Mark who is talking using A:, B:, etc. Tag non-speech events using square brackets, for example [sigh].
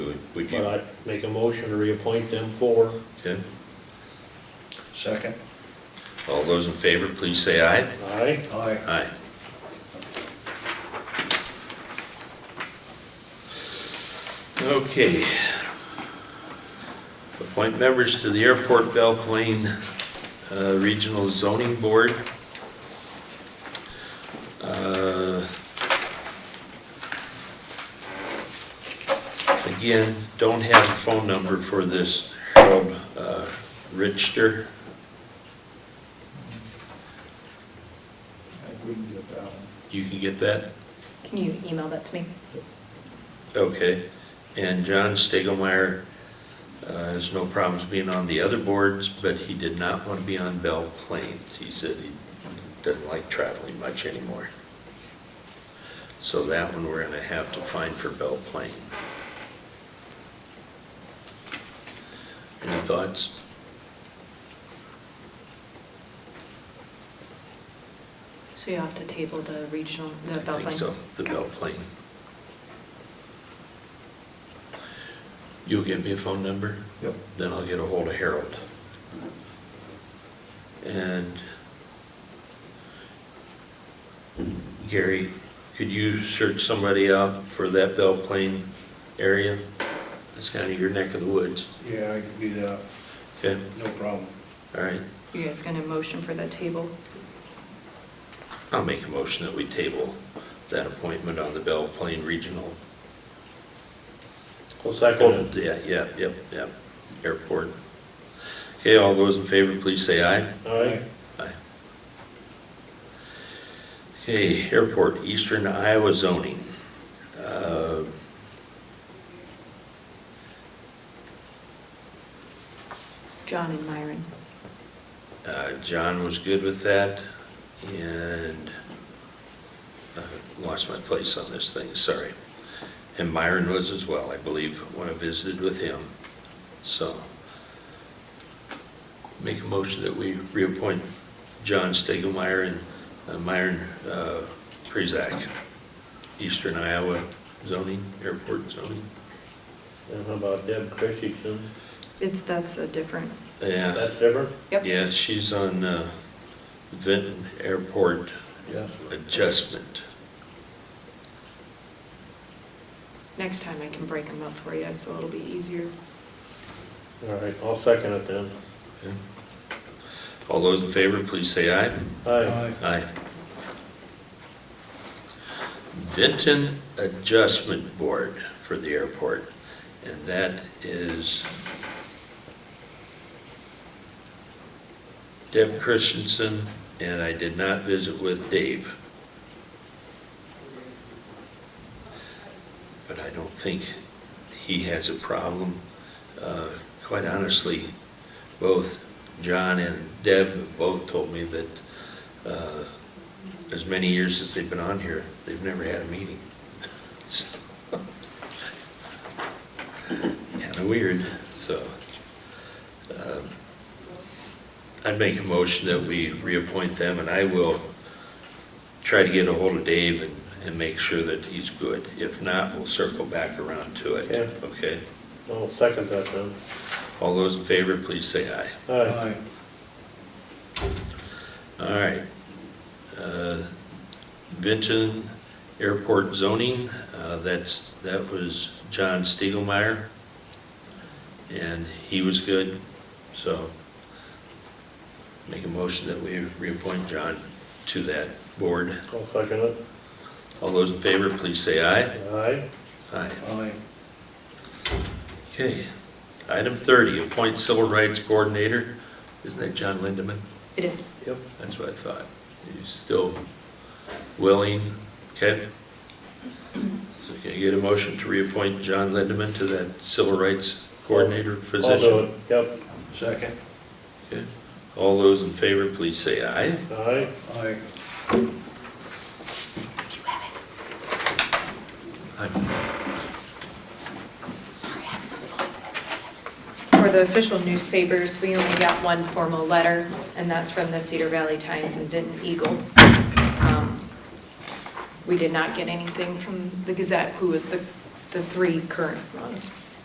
A: Would
B: But
A: you,
B: I'd make a motion to reappoint them for,
A: okay,
C: Second?
A: all those in favor, please say aye.
B: aye?
C: Aye.
A: Aye. Okay. Appoint members to the Airport Belle Plaine uh, Regional Zoning Board. Uh, Again, don't have a phone number for this Harold uh, Richter.
C: I wouldn't get that one.
A: You can get that?
D: Can you email that to me?
A: Okay, and John Stegelmeyer uh, has no problems being on the other boards, but he did not want to be on Bell Plains. He said he doesn't like traveling much anymore. So that one we're gonna have to find for Bell Plain. Any thoughts?
D: So you have to table the regional, the
A: I
D: Bell
A: think
D: Plain?
A: so, the Bell Plain. You'll give me a phone number?
C: Yep.
A: then I'll get a hold of Harold. And Gary, could you search somebody out for that Bell Plain area? That's kind of your neck of the woods,
C: Yeah, I can do that,
A: okay?
C: no problem.
A: All right,
D: You guys gonna motion for the table?
A: I'll make a motion that we table that appointment on the Bell Plain Regional.
B: Well, second,
A: Yeah, yeah, yep, yep, airport. Okay, all those in favor, please say aye.
B: aye?
A: Aye. Okay, airport, eastern Iowa zoning. Uh,
D: John and Myron.
A: uh, John was good with that, and uh, lost my place on this thing, sorry. And Myron was as well, I believe, when I visited with him, so. Make a motion that we reappoint John Stegelmeyer and uh, Myron uh, Prezak, eastern Iowa zoning, airport zoning.
B: And how about Deb Christensen?
D: It's, that's a different,
A: Yeah.
B: That's different?
D: yep.
A: Yeah, she's on uh, Vinton Airport Adjustment.
D: Next time I can break them up for you, so it'll be easier.
B: All right, I'll second it then.
A: All those in favor, please say aye.
B: Aye.
A: Aye. Vinton Adjustment Board for the airport, and that is Deb Christensen, and I did not visit with Dave. But I don't think he has a problem. Uh, Quite honestly, both John and Deb both told me that uh, as many years as they've been on here, they've never had a meeting. [laughs] Kind of weird, so. um, I'd make a motion that we reappoint them, and I will try to get a hold of Dave and, and make sure that he's good. If not, we'll circle back around to it,
B: Okay.
A: okay?
B: I'll second that then.
A: All those in favor, please say aye.
B: Aye.
A: All right. Uh, Vinton Airport zoning, uh, that's, that was John Stiegelmeyer. And he was good, so make a motion that we reappoint John to that board.
B: I'll second it.
A: All those in favor, please say aye.
B: Aye?
A: Aye.
C: Aye.
A: Okay. Item 30, appoint civil rights coordinator. Isn't that John Lindeman?
D: It is.
B: Yep.
A: That's what I thought. He's still willing, okay? So can I get a motion to reappoint John Lindeman to that civil rights coordinator
B: I'll do
A: position?
B: it. Yep,
C: Second?
A: Okay. All those in favor, please say aye.
B: aye.
C: Aye.
D: Thank you, Evan.
A: Aye.
D: Sorry, I'm so For the official newspapers, we only got one formal letter, and that's from the Cedar Valley Times and Vinton Eagle. Um, We did not get anything from the Gazette, who was the, the three current ones.